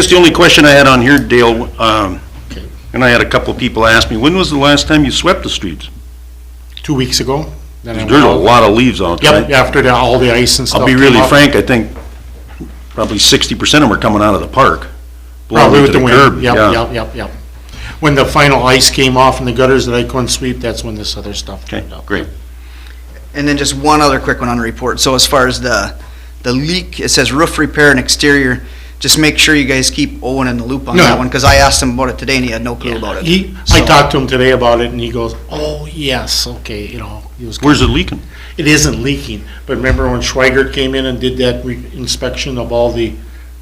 Just the only question I had on here, Dale, um, and I had a couple of people ask me, when was the last time you swept the streets? two weeks ago. Then I There's a went out. lot of leaves out there. Yep, after the- all the ice and stuff. I'll be came really up, frank, I think probably sixty percent of them are coming out of the park. blowing Probably to with the curb, wind, yep, yeah. yep, yep, yep. When the final ice came off in the gutters that I couldn't sweep, that's when this other stuff Okay, turned up. great. And then just one other quick one on the report. So as far as the, the leak, it says roof repair and exterior. Just make sure you guys keep Owen in the loop on No. that one, because I asked him about it today and he had no clue about it. He, I So- talked to him today about it and he goes, oh, yes, okay, you know, he was. Where's it leaking? It isn't leaking, but remember when Schweigert came in and did that re- inspection of all the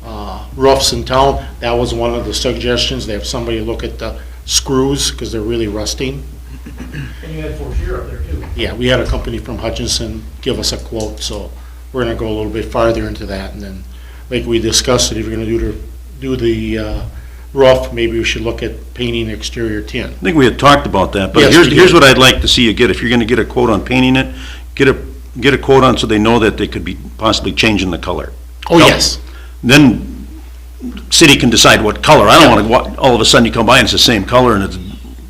uh, roofs in town? That was one of the suggestions, they have somebody look at the screws, because they're really rusting. And you had Fortier up there too. Yeah, we had a company from Hutchinson give us a quote, so we're gonna go a little bit farther into that, and then, like we discussed, it, if you're gonna do the, do the uh, roof, maybe we should look at painting exterior tin. I think we had talked about that, but Yes, here's, we here's did. what I'd like to see you get. If you're gonna get a quote on painting it, get a, get a quote on so they know that they could be possibly changing the color. Oh, Yep. yes, Then city can decide what color. I don't wanna, wa- all of a sudden you come by and it's the same color and it's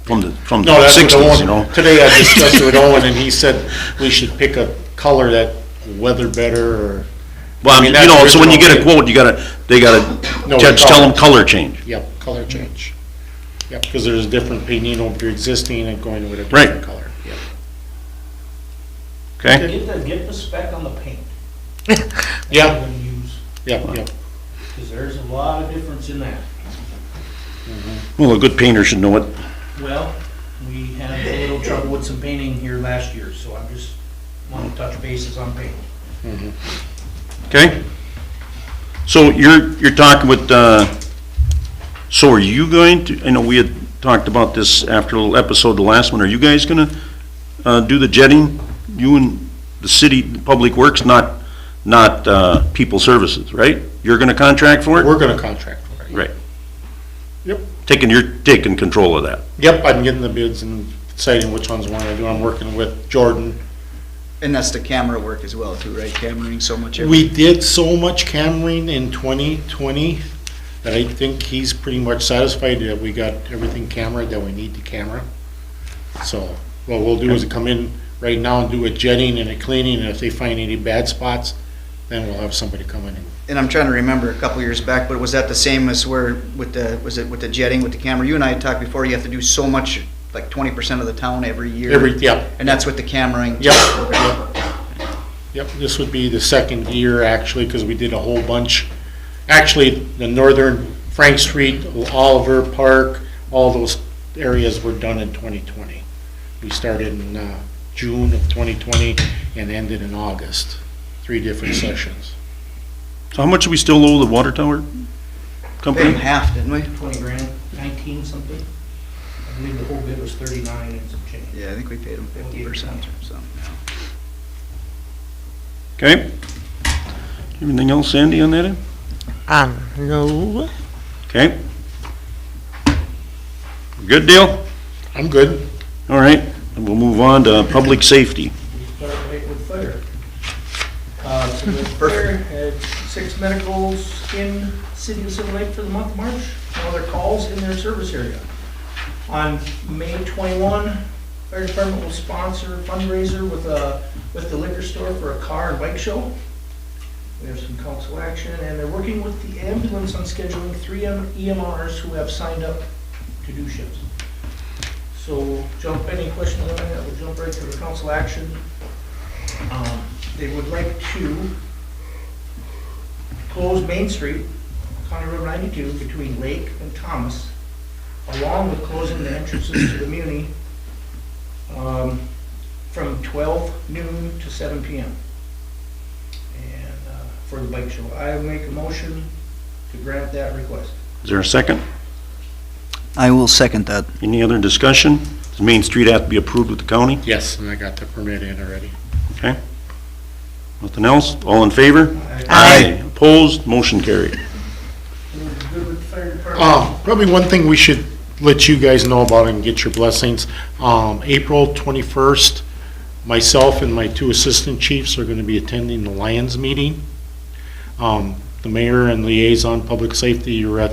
from the, from no, the that's what sixties, you Owen, know? today I discussed it with Owen, and he said we should pick a color that weather better, or, I Well, you mean, that's know, so when you get a original. quote, you gotta, they gotta, No, judge, tell them color change. yep, color Mm-hmm. change. Yep, because there's different painting over your existing and going with a different Right. color. Yep. Okay? Get the, get the spec on the paint. Yeah, That you use, yep, yep, because there's a lot of difference in that. Well, a good painter should know it. Well, we had a little trouble with some painting here last year, so I'm just wanting to touch bases on paint. Okay? So you're, you're talking with, uh, so are you going to, I know we had talked about this after the episode, the last one, are you guys gonna, uh, do the jetting? You and the city, Public Works, not, not, uh, People Services, right? You're gonna contract for it? we're gonna contract for it. Right. Yep. Taking, you're taking control of that. Yep, I'm getting the bids and deciding which ones I want to do. I'm working with Jordan. And that's the camera work as well too, right? Cameraing so much. every- We did so much cammering in 2020 that I think he's pretty much satisfied that we got everything camera that we need to camera. So what we'll do is come in right now and do a jetting and a cleaning, and if they find any bad spots, then we'll have somebody come in. and- And I'm trying to remember a couple years back, but was that the same as where with the, was it with the jetting with the camera? You and I had talked before, you have to do so much, like twenty percent of the town every year. Every, yep, And that's with the cameraing. Yep, yep. Yep, this would be the second year actually, because we did a whole bunch. Actually, the northern Frank Street, Oliver Park, all those areas were done in twenty twenty. We started in, uh, June of twenty twenty and ended in August, three different sessions. So how much do we still owe the water tower Paid them company? half, didn't we? Twenty grand, nineteen something? I believe the whole bid was thirty-nine and some change. Yeah, I think we paid them fifty percent or something. Okay? Anything else, Sandy, on that end? Um, no. Okay? Good deal? I'm good. All right, and we'll move on to public safety. We start right with fire. Uh, so the fire had six medicals in City of Silver Lake for the month of March, no other calls in their service area. On May twenty-one, fire department will sponsor a fundraiser with a, with the liquor store for a car and bike show. We have some council action, and they're working with the ambulance on scheduling three M- EMRs who have signed up to do shifts. So jump, any questions on that, we'll jump right to the council action. Um, They would like to close Main Street, County Road 92, between Lake and Thomas, along with closing the entrances to the Muni um, from 12 noon to 7 PM. And uh, for the bike show, I make a motion to grant that request. Is there a second? I will second that. Any other discussion? Does Main Street have to be approved with the county? Yes, and I got the permit in already. Nothing else? All in favor? Opposed? Motion carried. We're Good with the fire department. Um, probably one thing we should let you guys know about and get your blessings, um, April twenty-first, myself and my two assistant chiefs are gonna be attending the Lions meeting. Um, the mayor and liaison, public safety, you're at